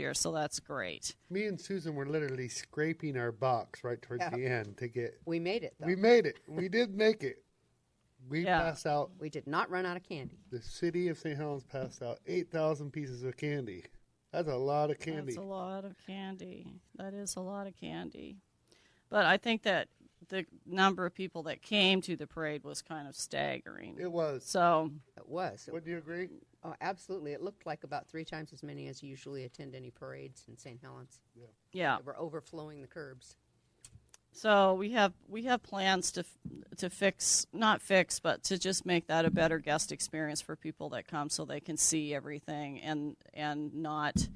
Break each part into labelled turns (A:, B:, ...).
A: year, so that's great.
B: Me and Susan were literally scraping our box right towards
C: Yeah.
B: the end to get.
C: We made it, though.
B: We
C: We,
B: made it. We did make it. We
A: Yeah.
B: passed out.
C: did not run out of candy.
B: The city of St. Helens passed out eight thousand pieces of candy. That's a lot of candy.
A: That's a lot of candy. That is a lot of candy. But I think that the number of people that came to the parade was kind of staggering.
B: It was.
A: So,
C: It was. It-
B: Wouldn't you agree?
C: oh, absolutely. It looked like about three times as many as usually attend any parades in St. Helens.
A: yeah.
C: They were overflowing the curbs.
A: So we have we have plans to f- to fix not fix but to just make that a better guest experience for people that come so they can see everything and and not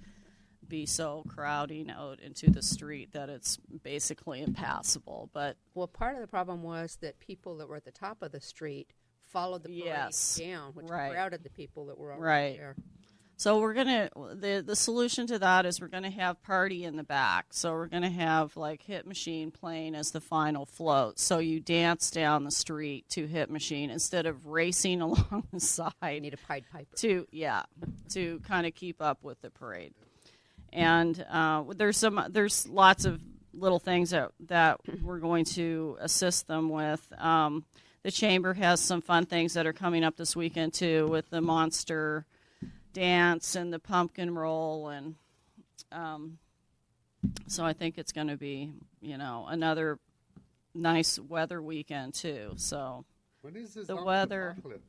A: be so crowding out into the street that it's basically impassable. But
C: Well, part of the problem was that people that were at the top of the street followed the parade
A: Yes.
C: down, which
A: Right.
C: crowded the people that were already
A: Right.
C: there.
A: So we're gonna the the solution to that is we're gonna have party in the back. So we're gonna have like Hit Machine playing as the final float. So you dance down the street to Hit Machine instead of racing along the
C: I
A: side
C: need a Pied Piper.
A: to yeah to kind of keep up with the parade. And uh, there's some there's lots of little things that that we're going to assist them with. Um, the chamber has some fun things that are coming up this weekend too with the monster dance and the pumpkin roll and um, so I think it's going to be you know another nice weather weekend too. So
B: When is this?
A: The
B: zombie
A: weather.
B: apocalypse?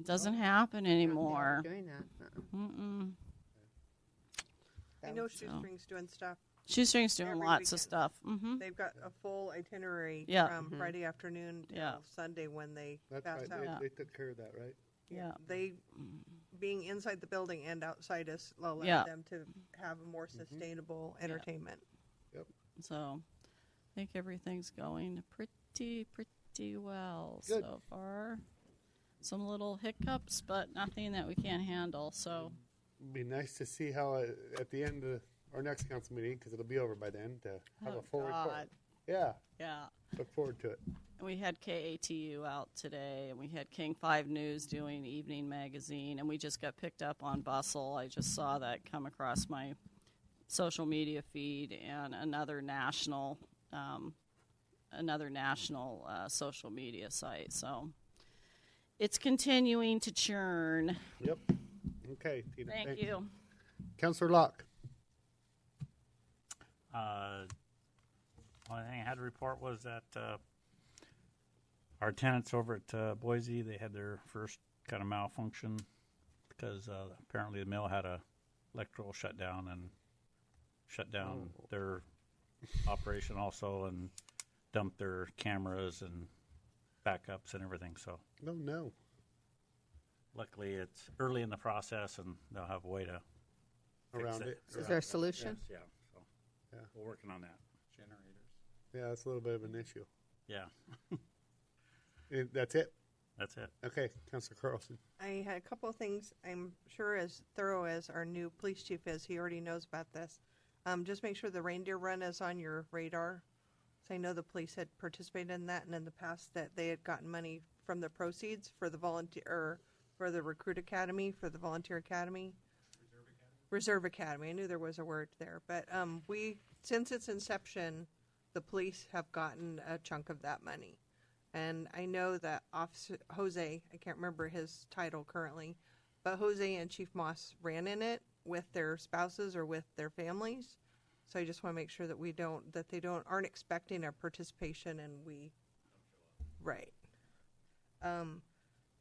A: it doesn't happen anymore.
C: They were doing that. Uh-uh.
A: Mm-mm.
C: That
D: I know
C: was-
D: Shoestrings doing stuff.
A: Shoestrings doing
D: Every
A: lots of
D: weekend.
A: stuff. hmm
D: They've got a full itinerary
A: Yeah.
D: from
C: Mhm.
D: Friday afternoon till
A: Yeah.
D: Sunday when they
B: Mm-hmm. That's
D: pass
B: right.
D: out.
B: They, they took care of that, right?
A: Yeah.
D: They being inside the building and outside us allow
A: Yeah.
D: them to have a
B: Mm-hmm.
D: more sustainable entertainment.
A: So I think everything's going pretty, pretty well
B: Good.
A: so far. Some little hiccups, but nothing that we can't handle. So,
B: It'd be nice to see how uh, at the end of our next council meeting, because it'll be over by then, to have a
A: Oh,
B: full report.
A: God.
B: Yeah,
A: yeah.
B: look forward to it.
A: And we had KATU out today, and we had King 5 News doing evening magazine, and we just got picked up on Bustle. I just saw that come across my social media feed, and another national, um, another national uh, social media site. So it's continuing to churn.
B: Yep. Okay, Tina.
A: Thank
B: thanks.
A: you.
B: Councilor Locke.
E: Uh, only thing I had to report was that uh, our tenants over at uh, Boise they had their first kind of malfunction because uh, apparently the mill had a electrical shutdown and shut down
B: Oh.
E: their operation also and dumped their cameras and backups and everything. So
B: No, no.
E: luckily it's early in the process and they'll have a way to fix
B: Around it.
C: Is there a solution?
E: Yes, yeah. So
B: Yeah.
E: we're working on that. Generators.
B: Yeah, that's a little bit of an issue.
E: Yeah,
B: Eh, That's it.
E: that's it.
B: Okay, Councilor Carlson.
D: I had a couple of things. I'm sure as thorough as our new police chief is, he already knows about this. Um, just make sure the reindeer run is on your radar. So I know the police had participated in that, and in the past that they had gotten money from the proceeds for the volunteer or for the recruit academy for the volunteer academy. Reserve Academy. I knew there was a word there, but um, we since its inception, the police have gotten a chunk of that money, and I know that Officer Jose, I can't remember his title currently, but Jose and Chief Moss ran in it with their spouses or with their families. So I just want to make sure that we don't that they don't aren't expecting our participation, and we right. Um,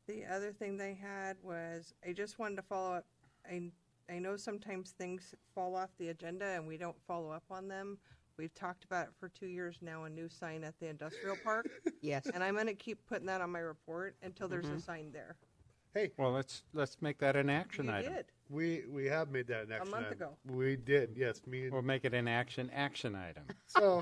D: the other thing they had was I just wanted to follow up. I I know sometimes things fall off the agenda and we don't follow up on them. We've talked about it for two years now. A new sign at the industrial park,
C: Yes.
D: and I'm going to keep putting that on my report until there's
C: Mm-hmm.
D: a sign there.
B: Hey,
F: Well, let's, let's make that an action
D: You
F: item.
D: did.
B: we we have made that an action
D: month
B: item.
D: ago.
B: We did. Yes, me and
F: We'll make it an action, action item.
B: So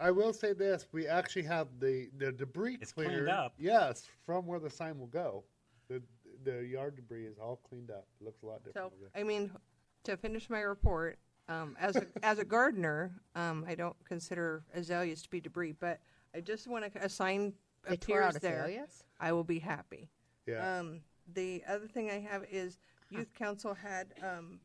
B: I will say this: we actually have the the debris
E: It's
B: cleared.
E: cleaned up.
B: Yes, from where the sign will go. The the yard debris is all cleaned up. It looks a lot different.
D: So,
B: over there.
D: I mean, to finish my report, um, as a, as a gardener, um, I don't consider azaleas to be debris, but I just want to assign
C: They tore
D: appears
C: out
D: there.
C: azaleas?
D: I will be happy.
B: Yeah.
D: Um, the other thing I have is youth council had um,